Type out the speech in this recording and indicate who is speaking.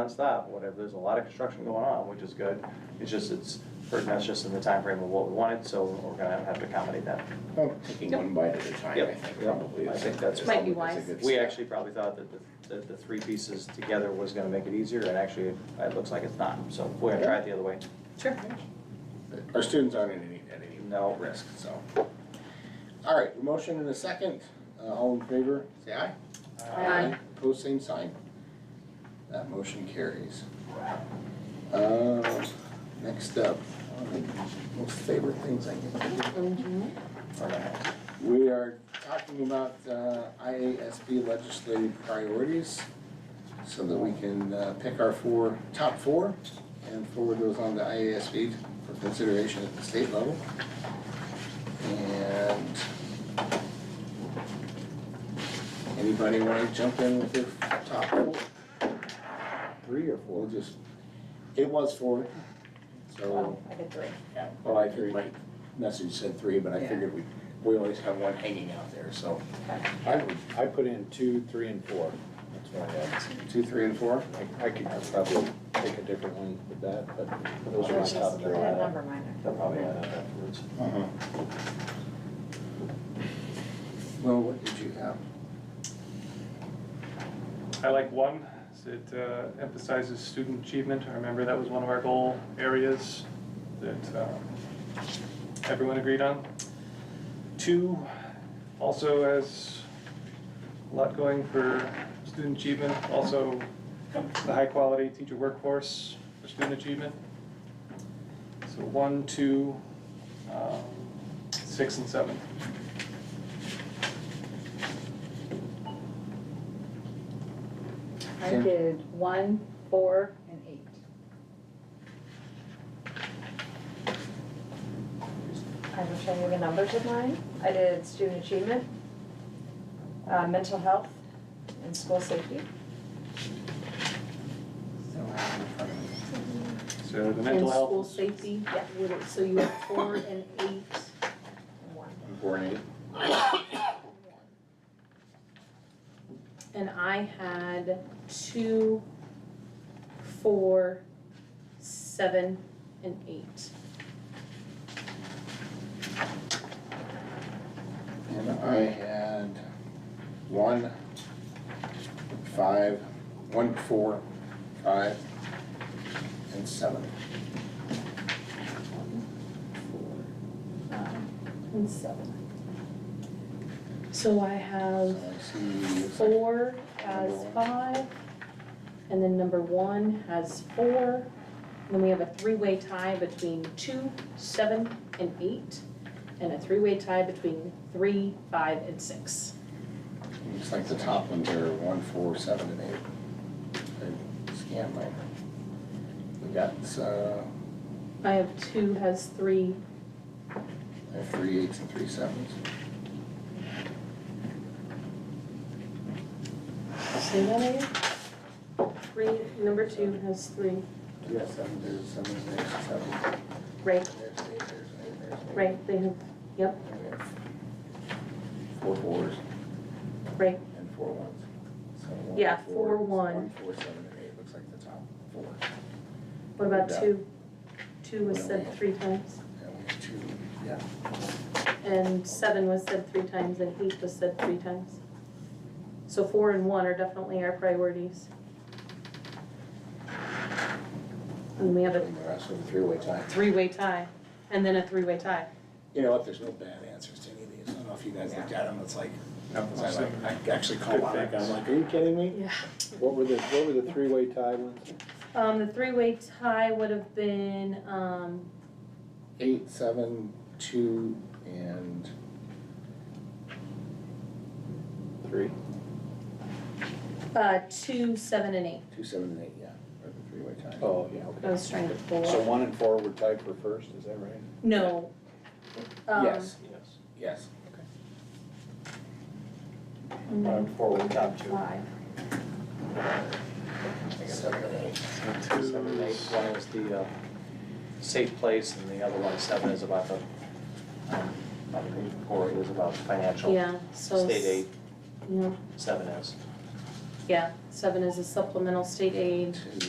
Speaker 1: nonstop, whatever, there's a lot of construction going on, which is good. It's just, it's hurting us just in the time frame of what we wanted, so we're gonna have to accommodate that.
Speaker 2: Taking one bite at a time, Oh. I
Speaker 1: Yep.
Speaker 2: think,
Speaker 1: Yep.
Speaker 2: probably.
Speaker 1: I
Speaker 2: is-
Speaker 1: think that's-
Speaker 2: is
Speaker 3: Might be
Speaker 2: a good
Speaker 3: wise.
Speaker 2: step.
Speaker 1: We actually probably thought that the, that the three pieces together was gonna make it easier, and actually, it looks like it's not, so we're gonna try it the other way.
Speaker 3: Sure.
Speaker 2: Our students aren't at any, at any
Speaker 1: No.
Speaker 2: risk, so. All right, motion and a second, Uh, all in favor, say aye.
Speaker 3: Aye.
Speaker 2: Pose same sign. That motion carries. Uh, Next up, one of the most favorite things I can do. We are talking about uh, IASB legislative priorities so that we can uh, pick our four, top four, and forward those on to IASB for consideration at the state level. And anybody want to jump in with their top four? Three or four? We'll just, it was four, so,
Speaker 3: Oh, I did three.
Speaker 2: well, I heard my message said three, but I
Speaker 3: Yeah.
Speaker 2: figured we, we always have one hanging out there, so.
Speaker 4: I, would- I put in two, three, and four. That's what I had.
Speaker 2: Two, three, and four?
Speaker 4: I- I could probably take a different one with that, but those are my
Speaker 3: There's
Speaker 4: top
Speaker 3: just- I didn't
Speaker 4: three.
Speaker 3: number mine.
Speaker 1: They'll probably add up afterwards.
Speaker 2: Uh-huh. Well, what did you have?
Speaker 5: I like one, is it uh, emphasizes student achievement. I remember that was one of our goal areas that um, everyone agreed on. Two, also has a lot going for student achievement, also the high-quality teacher workforce for student achievement. So one, two, um, six, and seven.
Speaker 3: I did one, four, and eight. I will show you the numbers of mine. I did student achievement, uh, mental health, and school safety.
Speaker 5: So the
Speaker 6: And
Speaker 5: mental health.
Speaker 6: school safety, would it- so you have four and eight.
Speaker 3: and one.
Speaker 2: Four and eight.
Speaker 6: And I had two, four, seven, and eight.
Speaker 2: And I had one, five, one, four, five, and seven.
Speaker 6: And seven. So I
Speaker 2: So I
Speaker 6: have
Speaker 2: see.
Speaker 6: four has five, and then number one has four. And Then we have a three-way tie between two, seven, and eight, and a three-way tie between three, five, and six.
Speaker 2: Looks like the top ones are one, four, seven, and eight. I scanned mine. We got, uh,
Speaker 6: I have two has three,
Speaker 2: I have three eights and three sevens.
Speaker 6: say that again. Three, number two has three,
Speaker 2: Yeah, seven, there's seven, there's seven.
Speaker 6: right,
Speaker 2: There's eight, there's eight, there's eight.
Speaker 6: right, they have, yep,
Speaker 2: And we have Four fours
Speaker 6: right,
Speaker 2: and four ones. So one,
Speaker 6: Yeah, four, one.
Speaker 2: One, four, seven, and eight, looks like the top four.
Speaker 6: what about
Speaker 2: Yeah.
Speaker 6: two? Two was said three times,
Speaker 2: And we have two, yeah.
Speaker 6: and seven was said three times, and eight was said three times. So four and one are definitely our priorities. And we have a
Speaker 2: And the rest of the three-way tie.
Speaker 6: three-way tie, and then a three-way tie.
Speaker 2: You know what, there's no bad answers to any of these. I don't know if you guys looked at them, it's like,
Speaker 5: No,
Speaker 2: I like, I actually called out, like, I'm like, are you kidding me?
Speaker 6: Yeah.
Speaker 4: What were the, what were the three-way tie ones?
Speaker 6: Um, the three-way tie would have been, um,
Speaker 2: Eight, seven, two, and
Speaker 4: Three.
Speaker 6: Uh, two, seven, and eight.
Speaker 2: two, seven, and eight, yeah, are the three-way tie.
Speaker 4: Oh, yeah,
Speaker 6: I
Speaker 4: okay.
Speaker 6: was trying to pull
Speaker 4: So
Speaker 6: up.
Speaker 4: one and four were tied for first, is that right?
Speaker 6: No. Um,
Speaker 2: Yes,
Speaker 1: Yes.
Speaker 2: yes.
Speaker 6: and then
Speaker 1: Um, four with top two.
Speaker 6: Five.
Speaker 2: Seven and eight.
Speaker 1: Seven and eight, one is the uh, safe place, and the other one, seven, is about the, um, I think four is about financial.
Speaker 6: Yeah, so.
Speaker 1: State
Speaker 6: s-
Speaker 1: aid,
Speaker 6: Yeah,
Speaker 1: seven is.
Speaker 6: Yeah, seven is a supplemental state aid.
Speaker 2: Two.